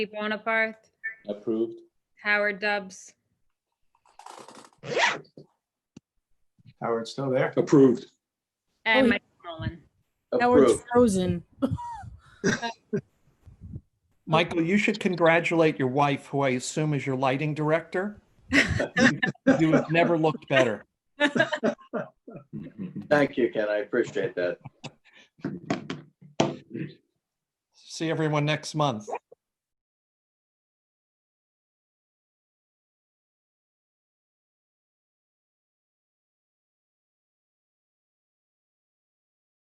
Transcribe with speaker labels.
Speaker 1: Bonaparte,
Speaker 2: Approved.
Speaker 1: Howard Dubs,
Speaker 3: Howard's still there.
Speaker 2: Approved.
Speaker 1: and
Speaker 4: yeah.
Speaker 1: Mike Nolan.
Speaker 4: Howard's
Speaker 2: Approved.
Speaker 4: frozen.
Speaker 5: Michael, you should congratulate your wife, who I assume is your lighting director. You have never looked better.
Speaker 6: Thank you, Ken. I appreciate that.
Speaker 5: See everyone next month.